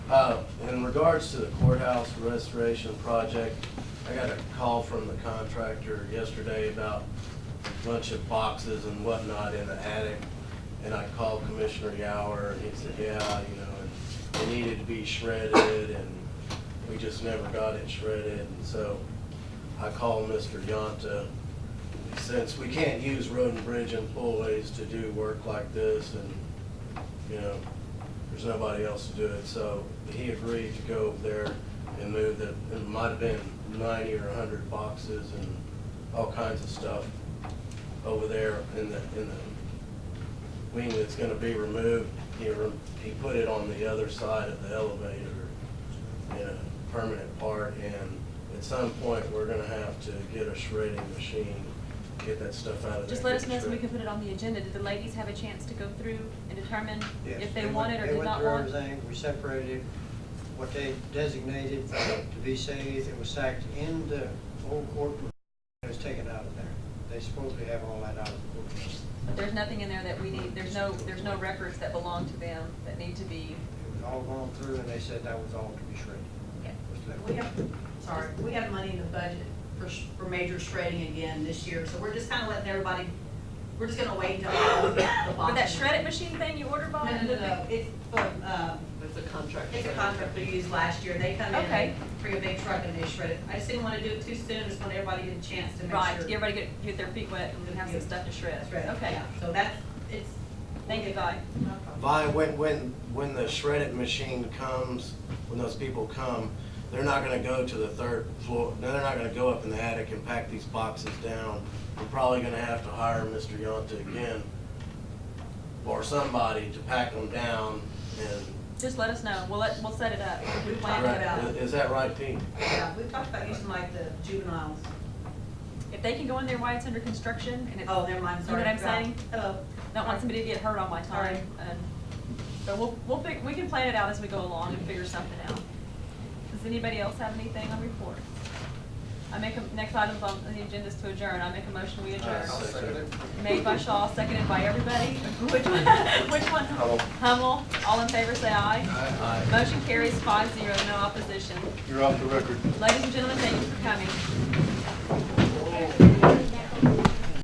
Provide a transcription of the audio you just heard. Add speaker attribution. Speaker 1: Uh, In regards to the courthouse restoration project, I got a call from the contractor yesterday about a bunch of boxes and whatnot in the attic. And I called Commissioner Yower and he said, yeah, you know, and it needed to be shredded and we just never got it shredded. And so I called Mr. Yonta. Since we can't use road and bridge employees to do work like this and, you know, there's nobody else to do it, so he agreed to go over there and move the, it might have been ninety or hundred boxes and all kinds of stuff over there in the, in the wing that's gonna be removed. He, re- he put it on the other side of the elevator in a permanent part, and at some point, we're gonna have to get a shredding machine, get that stuff out of there.
Speaker 2: Just let us know so we can put it on the agenda. Did the ladies have a chance to go through and determine
Speaker 3: Yes,
Speaker 2: if they
Speaker 3: went-
Speaker 2: wanted or
Speaker 3: they
Speaker 2: did
Speaker 3: went
Speaker 2: not
Speaker 3: through
Speaker 2: want?
Speaker 3: everything. We separated what they designated to be saved, it was stacked in the old courtroom, it was taken out of there. They supposedly have all that out of the courtroom.
Speaker 2: But there's nothing in there that we need, there's no, there's no records that belong to them that need to be,
Speaker 3: It was all gone through, and they said that was all to be shredded.
Speaker 2: yeah.
Speaker 3: What's left.
Speaker 4: We have, sorry, we have money in the budget for, sh- for major shredding again this year, so we're just kind of letting everybody, we're just gonna wait until all the boxes.
Speaker 2: But that shredded machine thing you ordered,
Speaker 4: No,
Speaker 2: Bob?
Speaker 4: no, no, no, it's from, um,
Speaker 5: It's a contract.
Speaker 4: it's a contract we used last year, they come in,
Speaker 2: Okay.
Speaker 4: they bring a big truck and they shred it. I just didn't want to do it too soon, just want everybody to get a chance to make sure.
Speaker 2: Right, to get everybody to get, get their feet wet and then have some stuff to shred.
Speaker 4: Shred it,
Speaker 2: Okay,
Speaker 4: yeah. So that's, it's.
Speaker 2: thank you, Vi.
Speaker 4: No problem.
Speaker 1: Vi, when, when, when the shredded machine comes, when those people come, they're not gonna go to the third floor, no, they're not gonna go up in the attic and pack these boxes down. We're probably gonna have to hire Mr. Yonta again, or somebody to pack them down and.
Speaker 2: Just let us know. We'll let, we'll set it up. We plan
Speaker 4: Right.
Speaker 2: it out.
Speaker 1: Is- Is that right, Pete?
Speaker 4: Yeah, we talked about using like the juveniles.
Speaker 2: If they can go in there while it's under construction and it's,
Speaker 4: Oh, never mind, sorry. Uh,
Speaker 2: You know what I'm saying?
Speaker 4: Hello.
Speaker 2: Don't want somebody to get hurt on my time.
Speaker 4: Sorry.
Speaker 2: um, But we'll, we'll fig, we can plan it out as we go along and figure something out. Does anybody else have anything on report? I make, a- next item on the agenda is to adjourn. I make a motion, we adjourn.
Speaker 1: I'll second it.
Speaker 2: Made by Shaw, seconded by everybody. Which one? Which one? Hummel. All in favor, say aye.
Speaker 1: Aye.
Speaker 2: Motion carries five zero, no opposition.
Speaker 6: You're off the record.
Speaker 2: Ladies and gentlemen, thank you for coming.